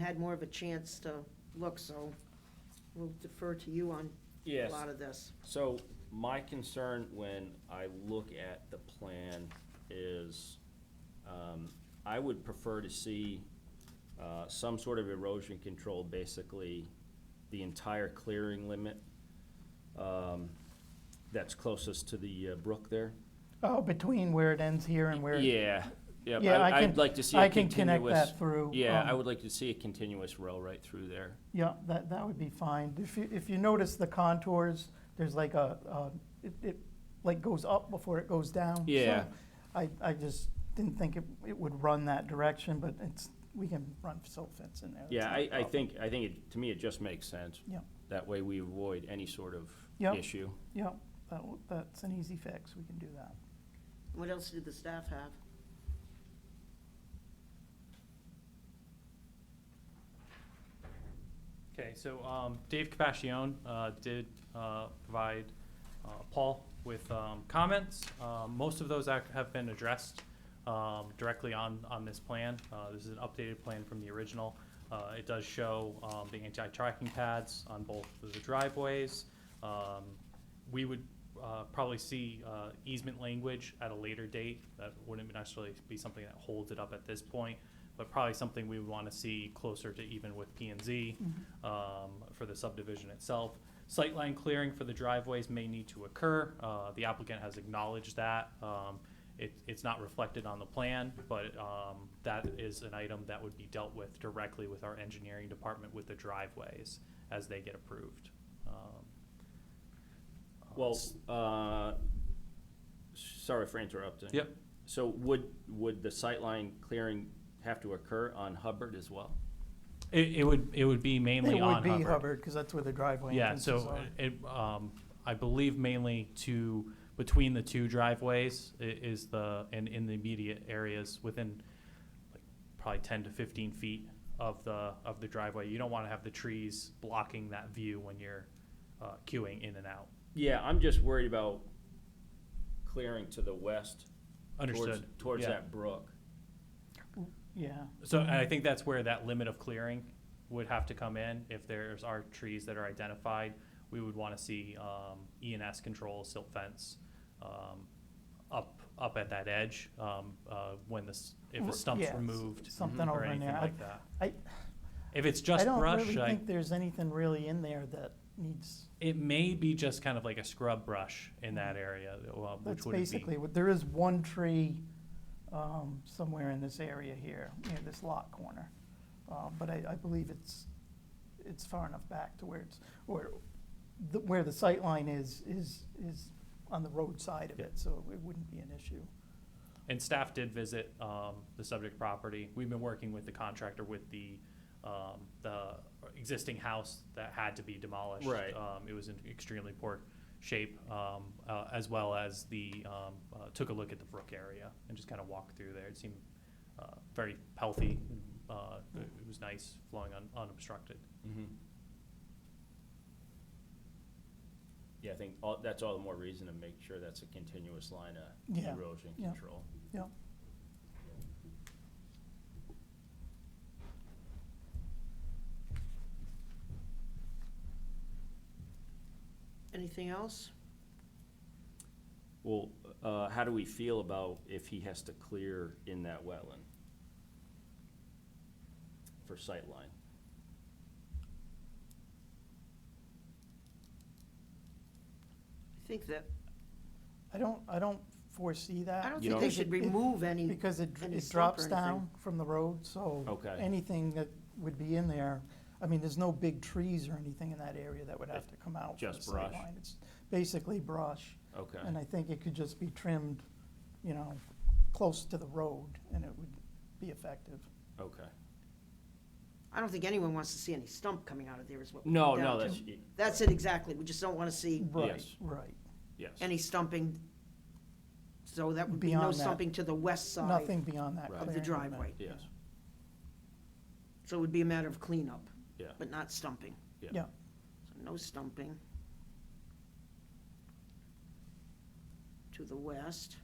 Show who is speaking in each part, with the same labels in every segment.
Speaker 1: had more of a chance to look, so we'll defer to you on a
Speaker 2: Yes,
Speaker 1: lot of this.
Speaker 2: so my concern when I look at the plan is, um, I would prefer to see, uh, some sort of erosion control, basically the entire clearing limit, um, that's closest to the uh, brook there.
Speaker 3: Oh, between where it ends here and where.
Speaker 2: Yeah, yeah,
Speaker 3: Yeah, I
Speaker 2: I,
Speaker 3: can-
Speaker 2: I'd like to see
Speaker 3: I
Speaker 2: a
Speaker 3: can connect
Speaker 2: continuous,
Speaker 3: that through.
Speaker 2: yeah,
Speaker 3: um,
Speaker 2: I would like to see a continuous row right through there.
Speaker 3: Yeah, that, that would be fine. If you, if you notice the contours, there's like a, uh, it, it like goes up before it goes down. so
Speaker 2: Yeah.
Speaker 3: I, I just didn't think it, it would run that direction, but it's, we can run silt fence in there. It's
Speaker 2: Yeah,
Speaker 3: not a
Speaker 2: I, I
Speaker 3: problem.
Speaker 2: think, I think, it- to me, it just makes sense.
Speaker 3: Yeah.
Speaker 2: That way we avoid any sort of
Speaker 3: Yeah.
Speaker 2: issue.
Speaker 3: Yeah, that, will- that's an easy fix. We can do that.
Speaker 1: What else did the staff have?
Speaker 4: Okay, so um, Dave Capascione uh, did uh, provide uh, Paul with um, comments. Um, Most of those act- have been addressed um, directly on, on this plan. Uh, This is an updated plan from the original. Uh, It does show um, the anti-tracking pads on both of the driveways. Um, We would uh, probably see uh, easement language at a later date. That wouldn't necessarily be something that holds it up at this point, but probably something we would want to see closer to even with P and Z um, for the subdivision itself. Sightline clearing for the driveways may need to occur. Uh, The applicant has acknowledged that. Um, it- It's not reflected on the plan, but um, that is an item that would be dealt with directly with our engineering department with the driveways as they get approved. Um, uh,
Speaker 2: Well, uh, sorry for interrupting.
Speaker 4: Yep.
Speaker 2: So would, would the sightline clearing have to occur on Hubbard as well?
Speaker 4: It, it would, it would be mainly
Speaker 3: It would
Speaker 4: on
Speaker 3: be
Speaker 4: Hubbard.
Speaker 3: Hubbard, because that's where the driveway
Speaker 4: Yeah,
Speaker 3: entrances
Speaker 4: so
Speaker 3: are.
Speaker 4: it, um, I believe mainly to, between the two driveways i- is the, and in the immediate areas within like probably ten to fifteen feet of the, of the driveway. You don't wanna have the trees blocking that view when you're, uh, queuing in and out.
Speaker 2: Yeah, I'm just worried about clearing to the west. towards-
Speaker 4: Understood.
Speaker 2: Towards
Speaker 4: Yeah.
Speaker 2: that brook.
Speaker 3: Yeah,
Speaker 4: So and
Speaker 3: Mm-hmm.
Speaker 4: I think that's where that limit of clearing would have to come in. If there's are trees that are identified, we would want to see um, E and S control, silt fence, um, up, up at that edge, um, uh, when this, if
Speaker 3: R-
Speaker 4: the stump's
Speaker 3: yeah, s-
Speaker 4: removed mm-hmm,
Speaker 3: something
Speaker 4: or
Speaker 3: over in
Speaker 4: anything
Speaker 3: there. I-
Speaker 4: like that.
Speaker 3: I-
Speaker 4: If it's
Speaker 3: I
Speaker 4: just
Speaker 3: don't
Speaker 4: brush,
Speaker 3: really
Speaker 4: I,
Speaker 3: think there's anything really in there that needs.
Speaker 4: it may be just kind of like a scrub brush in that area, uh, which
Speaker 3: Mm-hmm. That's
Speaker 4: wouldn't be.
Speaker 3: basically, what- there is one tree um, somewhere in this area here, near this lot corner. Uh, But I, I believe it's, it's far enough back to where it's, or the- where the sight line is, is, is on the roadside of
Speaker 4: Yeah.
Speaker 3: it, so it wouldn't be an issue.
Speaker 4: And staff did visit um, the subject property. We've been working with the contractor with the, um, the existing house that had to be demolished.
Speaker 2: Right.
Speaker 4: Um, It was in extremely poor shape, um, uh, as well as the, um, uh, took a look at the brook area and just kind of walked through there. It seemed uh, very healthy. Uh, It it was nice, flowing un- unobstructed.
Speaker 2: Mm-hmm. Yeah, I think all, that's all the more reason to make sure that's a continuous line of
Speaker 3: Yeah,
Speaker 2: erosion
Speaker 3: yeah.
Speaker 2: control.
Speaker 3: Yeah,
Speaker 1: Anything else?
Speaker 2: Well, uh, how do we feel about if he has to clear in that wetland? For sightline?
Speaker 1: I think that,
Speaker 3: I don't, I don't foresee that.
Speaker 1: I don't
Speaker 2: You
Speaker 1: think
Speaker 2: don't-
Speaker 1: they should
Speaker 3: Because it-
Speaker 1: remove any,
Speaker 3: Uh, Because it, dr-
Speaker 1: any
Speaker 3: it
Speaker 1: slope or
Speaker 3: drops
Speaker 1: anything.
Speaker 3: down from the road, so.
Speaker 2: Okay.
Speaker 3: Anything that would be in there, I mean, there's no big trees or anything in that area that would have to come out. for the
Speaker 2: Just brush.
Speaker 3: sightline. It's basically brush,
Speaker 2: Okay.
Speaker 3: and I think it could just be trimmed, you know, close to the road, and it would be effective.
Speaker 2: Okay.
Speaker 1: I don't think anyone wants to see any stump coming out of there is what. we
Speaker 2: No,
Speaker 1: come down
Speaker 2: no,
Speaker 1: to.
Speaker 2: that's,
Speaker 1: That's it exactly. We just don't want to see
Speaker 3: Right,
Speaker 2: Yes.
Speaker 3: right.
Speaker 2: yes.
Speaker 1: any stumping. So that would be no
Speaker 3: Beyond that,
Speaker 1: stumping to the west side
Speaker 3: Nothing beyond that.
Speaker 2: Right.
Speaker 1: of the
Speaker 3: clearing limit.
Speaker 1: driveway.
Speaker 2: Yes,
Speaker 1: So it would be a matter of cleanup,
Speaker 2: yeah.
Speaker 1: but not stumping.
Speaker 2: Yeah.
Speaker 3: Yeah,
Speaker 1: So No stumping. To the west.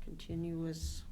Speaker 1: Continuous